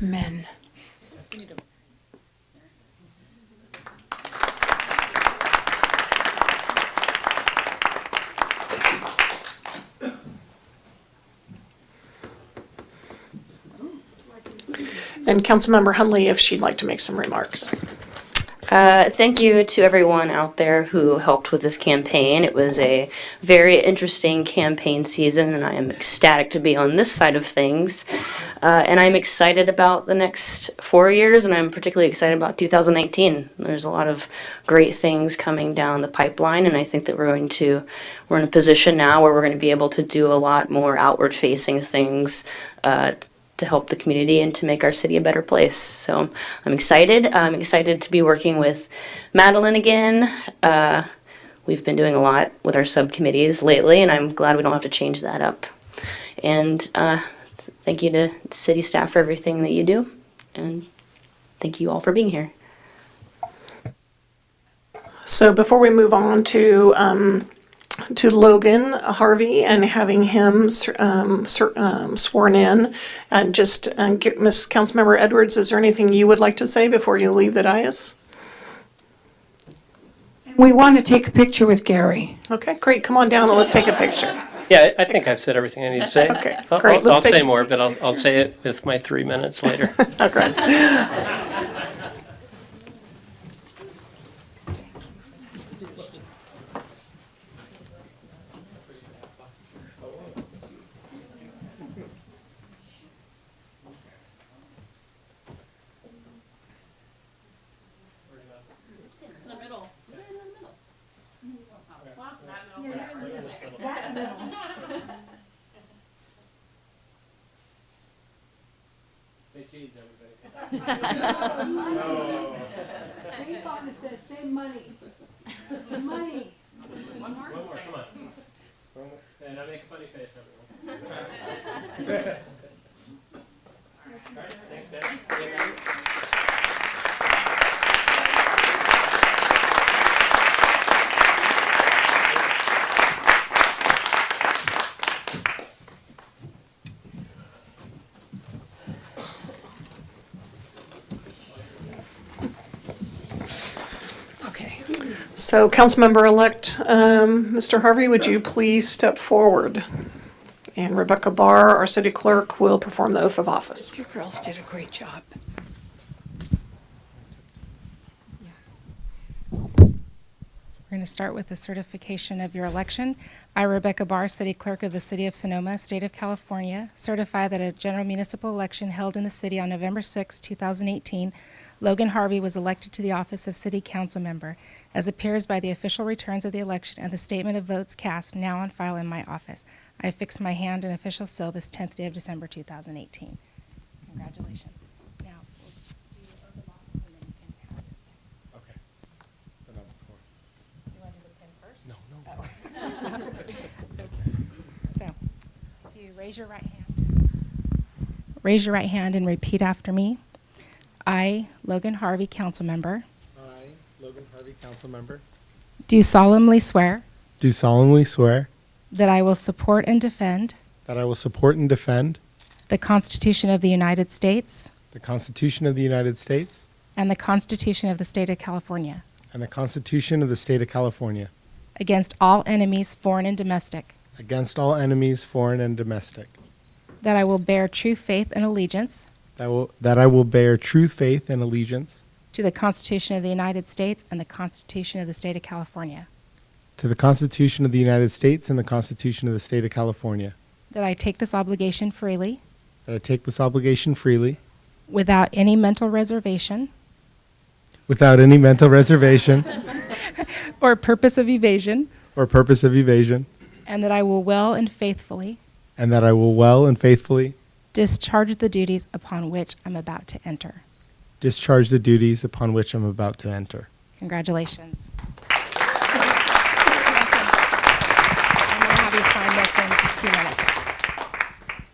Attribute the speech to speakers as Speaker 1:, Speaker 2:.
Speaker 1: Men. And Councilmember Hunley, if she'd like to make some remarks.
Speaker 2: Uh, thank you to everyone out there who helped with this campaign. It was a very interesting campaign season, and I am ecstatic to be on this side of things. Uh, and I'm excited about the next four years, and I'm particularly excited about 2019. There's a lot of great things coming down the pipeline, and I think that we're going to we're in a position now where we're going to be able to do a lot more outward-facing things. Uh, to help the community and to make our city a better place. So I'm excited. I'm excited to be working with Madeline again. Uh, we've been doing a lot with our subcommittees lately, and I'm glad we don't have to change that up. And uh, th- thank you to city staff for everything that you do, and thank you all for being here.
Speaker 1: So before we move on to, um, to Logan Harvey and having him, um, ser- um, sworn in, uh, just, uh, get- Ms. Councilmember Edwards, is there anything you would like to say before you leave the dais?
Speaker 3: We want to take a picture with Gary.
Speaker 1: Okay, great, come on down and let's take a picture.
Speaker 4: Yeah, I I think I've said everything I need to say.
Speaker 1: Okay,
Speaker 4: I'll-
Speaker 1: great.
Speaker 4: I'll-
Speaker 1: Let's
Speaker 4: I'll say
Speaker 1: take-
Speaker 4: more, but I'll, I'll say it with my three minutes later.
Speaker 1: Okay.
Speaker 3: Jay Fonda says, "Say money." Money.
Speaker 4: One more, come on. And I make a funny face, everyone. All right, thanks, guys.
Speaker 3: Okay.
Speaker 1: So Councilmember-elect, um, Mr. Harvey, would you please step forward? And Rebecca Barr, our city clerk, will perform the oath of office.
Speaker 3: You girls did a great job.
Speaker 5: We're going to start with the certification of your election. I, Rebecca Barr, City Clerk of the City of Sonoma, State of California, certify that a general municipal election held in the city on November 6, 2018, Logan Harvey was elected to the office of City Council Member, as appears by the official returns of the election and the statement of votes cast now on file in my office. I affix my hand and official seal this 10th day of December 2018. Congratulations. Now, we'll do your oath of office and then you can have it.
Speaker 6: Okay. Then I'm for it.
Speaker 5: You want to do the pin first?
Speaker 6: No, no.
Speaker 5: So, if you raise your right hand. Raise your right hand and repeat after me. I, Logan Harvey, council member,
Speaker 6: I, Logan Harvey, council member.
Speaker 5: do solemnly swear
Speaker 6: Do solemnly swear
Speaker 5: that I will support and defend
Speaker 6: that I will support and defend
Speaker 5: the Constitution of the United States
Speaker 6: the Constitution of the United States
Speaker 5: and the Constitution of the State of California
Speaker 6: and the Constitution of the State of California
Speaker 5: against all enemies, foreign and domestic,
Speaker 6: against all enemies, foreign and domestic.
Speaker 5: that I will bear true faith and allegiance
Speaker 6: That, will, that I will bear true faith and allegiance
Speaker 5: to the Constitution of the United States and the Constitution of the State of California,
Speaker 6: to the Constitution of the United States and the Constitution of the State of California.
Speaker 5: that I take this obligation freely
Speaker 6: That I take this obligation freely
Speaker 5: without any mental reservation
Speaker 6: without any mental reservation
Speaker 5: or purpose of evasion,
Speaker 6: or purpose of evasion,
Speaker 5: and that I will well and faithfully
Speaker 6: and that I will well and faithfully
Speaker 5: discharge the duties upon which I'm about to enter.
Speaker 6: discharge the duties upon which I'm about to enter.
Speaker 5: Congratulations.